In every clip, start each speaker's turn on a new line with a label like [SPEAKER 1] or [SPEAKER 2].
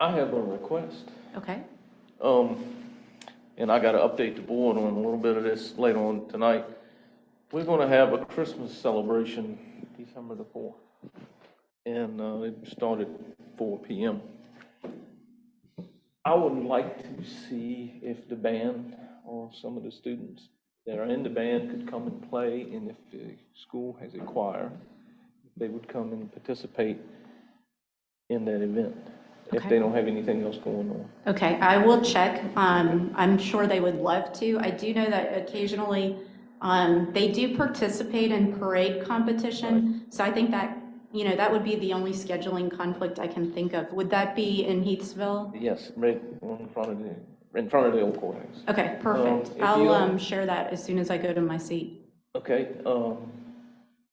[SPEAKER 1] I have a request,
[SPEAKER 2] Okay,
[SPEAKER 1] um, and I gotta update the board on a little bit of this later on tonight. We're gonna have a Christmas celebration December the fourth. And, uh, it started four P M. I would like to see if the band or some of the students that are in the band could come and play, and if the school has a choir, they would come and participate in that event, if
[SPEAKER 2] Okay.
[SPEAKER 1] they don't have anything else going on.
[SPEAKER 2] okay, I will check. Um, I'm sure they would love to. I do know that occasionally, um, they do participate in parade competition, so I think that, you know, that would be the only scheduling conflict I can think of. Would that be in Heathsville?
[SPEAKER 1] Yes, right in front of the, in front of the old courthouse.
[SPEAKER 2] Okay, perfect.
[SPEAKER 1] if you-
[SPEAKER 2] I'll, um, share that as soon as I go to my seat.
[SPEAKER 1] Okay, um,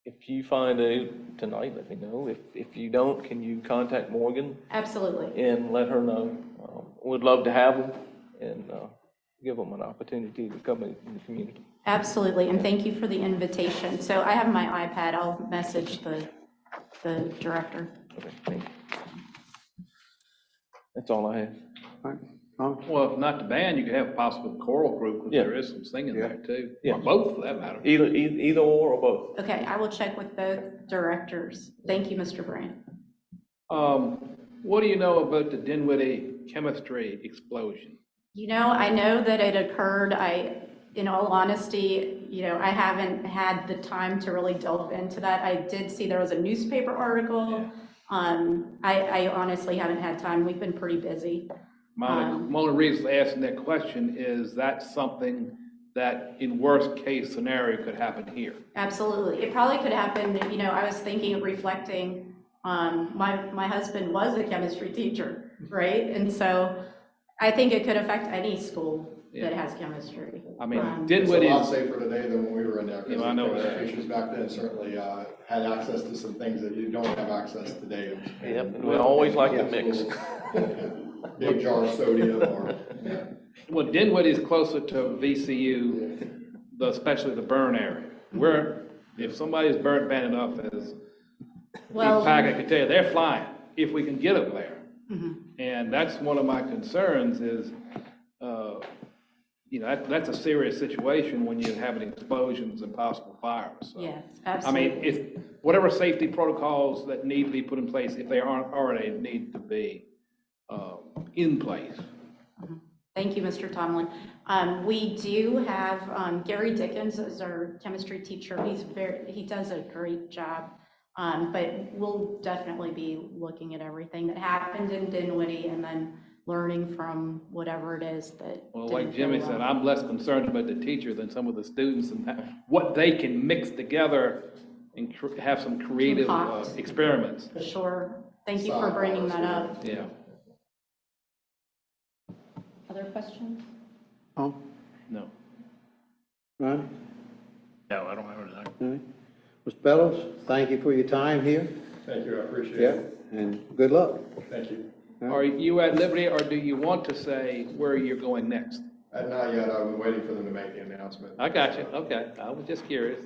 [SPEAKER 1] if you find out tonight, let me know. If, if you don't, can you contact Morgan
[SPEAKER 2] Absolutely.
[SPEAKER 1] and let her know? Um, Would love to have them and, uh, give them an opportunity to come in in the community.
[SPEAKER 2] Absolutely, and thank you for the invitation. So I have my iPad, I'll message the, the director.
[SPEAKER 1] Okay, thank you. That's all I have.
[SPEAKER 3] Right. Oh,
[SPEAKER 4] Well, if not the band, you could have a possible choral group, because
[SPEAKER 1] Yeah.
[SPEAKER 4] there is some singing there too.
[SPEAKER 1] Yeah. E-
[SPEAKER 4] Or both, for that matter.
[SPEAKER 1] Either, either either or or both.
[SPEAKER 2] Okay, I will check with both directors. Thank you, Mr. Brandt.
[SPEAKER 4] Um, what do you know about the Dinwiddie chemistry explosion?
[SPEAKER 2] You know, I know that it occurred, I, in all honesty, you know, I haven't had the time to really delve into that. I did see there was a newspaper article. Um, I, I honestly haven't had time, we've been pretty busy.
[SPEAKER 4] My only,
[SPEAKER 2] Um,
[SPEAKER 4] my only reason for asking that question is that something that in worst case scenario could happen here.
[SPEAKER 2] Absolutely. It probably could happen, you know, I was thinking, reflecting, um, my, my husband was a chemistry teacher,
[SPEAKER 4] Mm-hmm.
[SPEAKER 2] right? And so I think it could affect any school that
[SPEAKER 4] Yeah.
[SPEAKER 2] has chemistry.
[SPEAKER 4] I mean,
[SPEAKER 2] Um,
[SPEAKER 5] It's a
[SPEAKER 4] Dinwiddie,
[SPEAKER 5] lot safer today than when we were in there. 'cause
[SPEAKER 4] Yeah, I know
[SPEAKER 5] the
[SPEAKER 4] that.
[SPEAKER 5] Teachers back then certainly uh, had access to some things that you don't have access today.
[SPEAKER 1] Yep, and we always like to mix.
[SPEAKER 5] Big jar of sodium or, yeah.
[SPEAKER 4] well, Dinwiddie's closer to VCU, the- especially the burn area. Where, if somebody's burnt bad enough, as Steve
[SPEAKER 2] Well, Mm-hmm.
[SPEAKER 4] Pack, I can tell you, they're flying, if we can get them there. And that's one of my concerns is, uh, you know, that, that's a serious situation when you're having explosions and possible fires, so.
[SPEAKER 2] yes,
[SPEAKER 4] I mean,
[SPEAKER 2] absolutely.
[SPEAKER 4] if, whatever safety protocols that need to be put in place, if they aren't already, need to be, uh, in place.
[SPEAKER 2] Thank you, Mr. Tomlin. Um, we do have, um, Gary Dickens is our chemistry teacher. He's very, he does a great job. Um, but we'll definitely be looking at everything that happened in Dinwiddie and then learning from whatever it is that.
[SPEAKER 4] Well,
[SPEAKER 2] didn't
[SPEAKER 4] like
[SPEAKER 2] go
[SPEAKER 4] Jimmy
[SPEAKER 2] well.
[SPEAKER 4] said, I'm less concerned about the teacher than some of the students and that- what they can mix together and cr- have some creative uh,
[SPEAKER 2] Concoct.
[SPEAKER 4] experiments,
[SPEAKER 2] Sure. Thank you for bringing that up.
[SPEAKER 4] yeah.
[SPEAKER 2] Other questions?
[SPEAKER 3] oh,
[SPEAKER 4] No.
[SPEAKER 3] none,
[SPEAKER 4] No, I don't have anything.
[SPEAKER 3] none. Ms. Bellows, thank you for your time here.
[SPEAKER 5] Thank you, I appreciate it.
[SPEAKER 3] And good luck.
[SPEAKER 5] Thank you.
[SPEAKER 4] Are you at liberty, or do you want to say where you're going next?
[SPEAKER 5] And not yet, I've been waiting for them to make the announcement.
[SPEAKER 4] I got you, okay, I was just curious.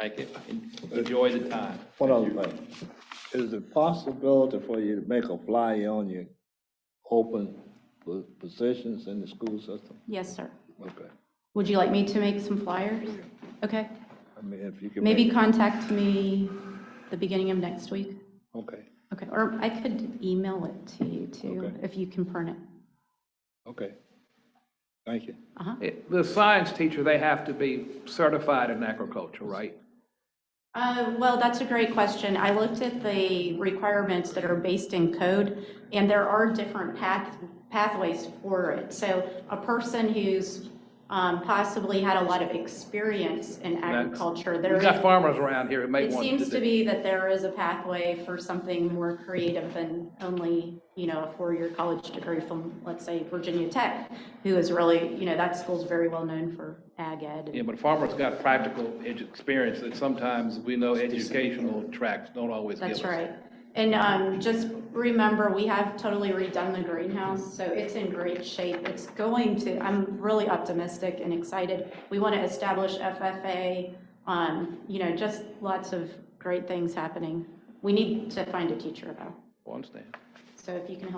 [SPEAKER 4] Thank you, enjoy the time.
[SPEAKER 6] One other thing, is it possibility for you to make a flyer on your open po- positions in the school system?
[SPEAKER 2] Yes, sir.
[SPEAKER 6] Okay,
[SPEAKER 2] Would you like me to make some flyers? Okay.
[SPEAKER 6] I mean, if you can. make-
[SPEAKER 2] Maybe contact me the beginning of next week.
[SPEAKER 6] Okay,
[SPEAKER 2] Okay, or I could email it to you too,
[SPEAKER 6] Okay.
[SPEAKER 2] if you can print it.
[SPEAKER 6] okay, thank you.
[SPEAKER 2] Uh-huh.
[SPEAKER 4] The science teacher, they have to be certified in agriculture, right?
[SPEAKER 2] Uh, well, that's a great question. I looked at the requirements that are based in code, and there are different path, pathways for it. So a person who's, um, possibly had a lot of experience in agriculture, there
[SPEAKER 4] We've
[SPEAKER 2] is.
[SPEAKER 4] got farmers around here who may
[SPEAKER 2] It
[SPEAKER 4] want to
[SPEAKER 2] seems to
[SPEAKER 4] do.
[SPEAKER 2] be that there is a pathway for something more creative than only, you know, a four-year college degree from, let's say, Virginia Tech, who is really, you know, that school's very well known for ag ed.
[SPEAKER 4] Yeah, but farmers got practical edu- experience that sometimes we know educational tracks don't always give us.
[SPEAKER 2] That's right. And um, just remember, we have totally redone the greenhouse, so it's in great shape. It's going to, I'm really optimistic and excited. We want to establish FFA, um, you know, just lots of great things happening. We need to find a teacher, though.
[SPEAKER 4] I Understand.
[SPEAKER 2] So if you can help